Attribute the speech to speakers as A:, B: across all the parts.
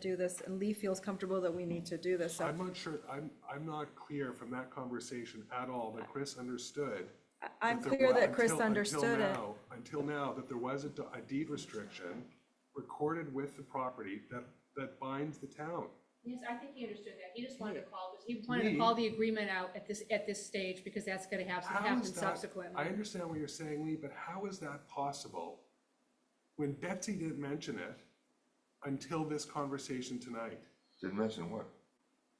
A: do this, and Lee feels comfortable that we need to do this, so
B: I'm not sure, I'm, I'm not clear from that conversation at all that Chris understood.
A: I- I'm
B: that there
A: clear
B: wa-
A: that Chris
B: until- until
A: understood it.
B: now- Until now, that there was a d- a deed restriction recorded with the property that, that binds the town.
C: Yes, I think he understood that. He just wanted to call this, he wanted
B: Me?
C: to call the agreement out at this, at this stage because that's gonna have,
B: How
C: happen
B: is that-
C: subsequently.
B: I understand what you're saying, Lee, but how is that possible when Betsy didn't mention it until this conversation tonight?
D: Didn't mention what?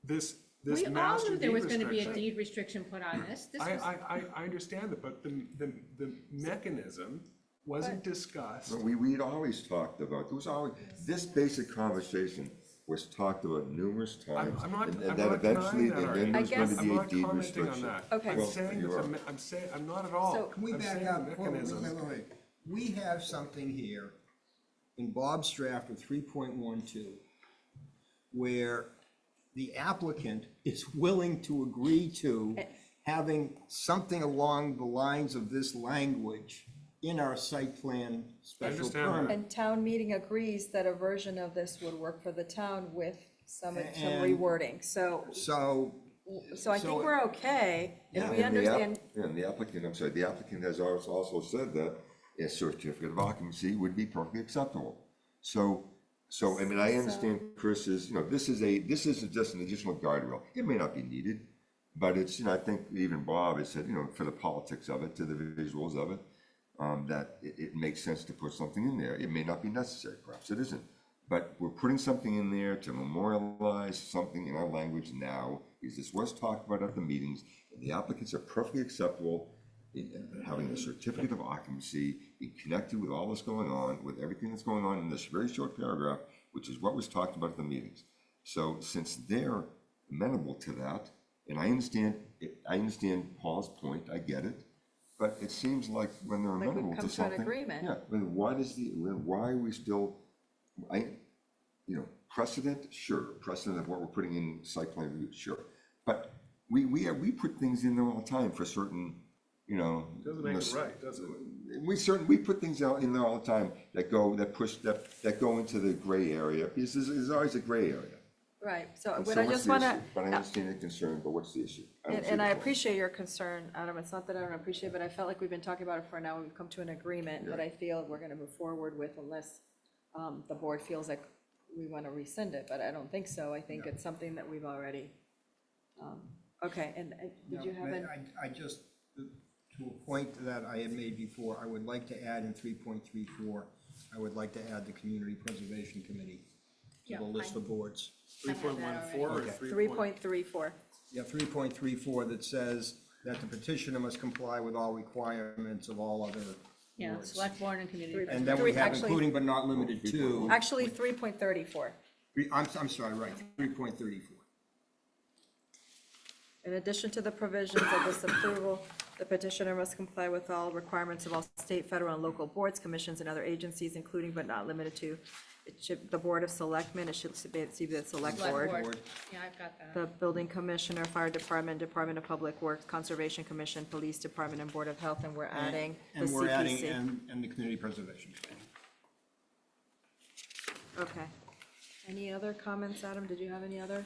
B: This, this
C: We all
B: master
C: knew there
B: deed
C: was gonna be a
B: restriction.
C: deed restriction put on this. This
B: I,
C: was,
B: I, I, I understand that, but the, the, the mechanism wasn't discussed.
D: But we, we'd always talked about, there was always, this basic conversation was talked about numerous
B: I'm,
D: times.
B: I'm not,
D: and-
B: I'm
D: and
B: not
D: that eventually,
B: denying
D: and
B: that,
D: then there
B: Artie.
A: I
D: was going to
A: guess-
B: I'm
D: be a
B: not commenting
D: deed
B: on
D: restriction.
B: that.
A: Okay.
B: I'm
D: Well,
B: saying,
D: you
B: it's a
D: are.
B: me- I'm saying, I'm not at all.
A: So-
E: Can we
B: I'm
E: back
B: saying
E: up?
B: the
E: Hold on, wait,
B: mechanism.
E: wait, wait, wait. We have something here in Bob's draft of three point one two where the applicant is willing to agree to having something along the lines of this language in our site plan special
B: understand that.
E: permit.
A: And town meeting agrees that a version of this would work for the town with some, some
E: And-
A: rewording, so,
E: So,
A: so I think
E: So-
A: we're okay, and
D: And
A: we
D: the app-
A: understand,
D: yeah, And the applicant, I'm sorry, the applicant has als- also said that a certificate of occupancy would be perfectly acceptable. So, so, I mean, I understand Chris's, you know, this is a, this is just an additional guardrail. It may not be needed, but it's, you know, I think even Bob has said, you know, for the politics of it, to the visuals of it, um, that it, it makes sense to put something in there. It may not be necessary, perhaps it isn't. But we're putting something in there to memorialize something in our language now, because this was talked about at the meetings, and the applicants are perfectly acceptable in- in having a certificate of occupancy, be connected with all that's going on, with everything that's going on in this very short paragraph, which is what was talked about at the meetings. So since they're amenable to that, and I understand, I understand Paul's point, I get it, but it seems like when they're
A: we've
D: amenable
A: come
D: to
A: to an
D: something.
A: agreement.
D: Yeah, but why does the, then why are we still, I, you know, precedent, sure, precedent of what we're putting in site plan review, sure. But we, we, we put things in there all the time for certain, you know.
B: Doesn't make it
D: mis-
B: right, does it?
D: We certain, we put things out in there all the time that go, that push, that, that go into the gray area, because there's, there's always a gray area.
A: right, so
D: And
A: what
D: so
A: I
D: what's
A: just
D: the
A: want
D: issue? But I
A: to,
D: understand the concern, but what's the issue? don't
A: And,
D: see
A: and
D: the
A: I
D: problem.
A: appreciate your concern, Adam, it's not that I don't appreciate, it, but I felt like we've been talking about it for an hour, we've come to an agreement that I feel we're gonna move forward with unless, um, the board feels like we wanna rescind it, but I don't think so, I think it's something that we've already, um, okay, and, and did you
E: No,
A: have
E: but
A: an?
E: I, I just, to a point that I had made before, I would like to add in three point three four, I would like to add the Community Preservation Committee to
C: Yeah,
E: the list
C: fine.
E: of boards.
C: I have that
B: 3.14 or
E: already. Okay.
B: 3.3?
A: Three point three four.
E: Yeah, three point three four that says that the petitioner must comply with all requirements of all other
C: yeah,
E: boards.
C: select board and community.
A: Three-
E: And then we
A: Three-
E: have
A: actually-
E: including but not limited to,
A: Actually, three point thirty-four.
E: Three- I'm, I'm sorry, right, three point thirty-four.
A: In addition to the provisions of this approval, the petitioner must comply with all requirements of all state, federal, and local boards, commissions, and other agencies, including but not limited to, it should, the Board of Selectmen, it should be, it should be the Select
C: Select
A: Board,
C: board. Yeah, I've got that.
A: the Building Commissioner, Fire Department, Department of Public Works, Conservation Commission, Police Department, and Board of Health, and we're adding the
E: And we're adding,
A: CPC.
E: and, and the Community Preservation Committee.
A: Okay. Any other comments, Adam? Did you have any other?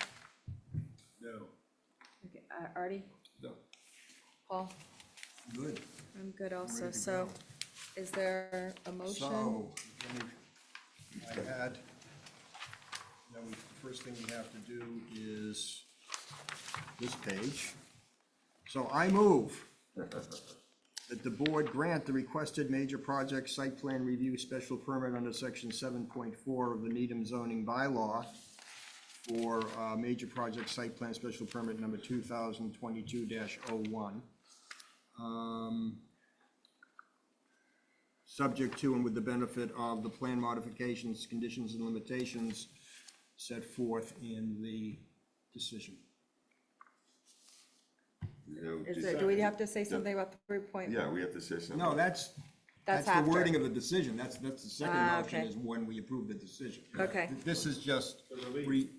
B: No.
A: Okay, uh, Artie?
D: No.
A: Paul?
E: Good.
A: I'm good also.
E: ready to
A: So
E: go.
A: is there a motion?
E: So, then we- I had, now we, the first thing we have to do is this page. So I move that the board grant the requested major project site plan review special permit under section seven point four of the Needham zoning bylaw for, uh, major project site plan special permit number two thousand twenty-two dash oh one. Um, subject to and with the benefit of the plan modifications, conditions, and limitations set forth in the decision.
D: You know,
A: Is
D: just-
A: there, do we have to say something about three point?
D: Yeah, we have to say something.
E: No, that's,
A: That's
E: that's the
A: after.
E: wording of the decision, that's, that's the second
A: Ah,
E: option
A: okay.
E: is when we approve the decision.
A: Okay.
E: This is just, re-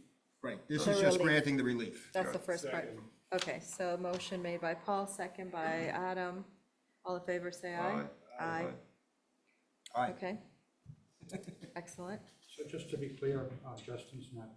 E: right, this is
A: The
E: just
A: relief.
E: granting the relief.
A: That's the first part. Okay, so motion made by Paul, second by Adam. All in favor, say aye.
D: Aye.
A: Aye,
E: Aye.
A: okay. Excellent.
F: So just to be clear, uh, Justin's not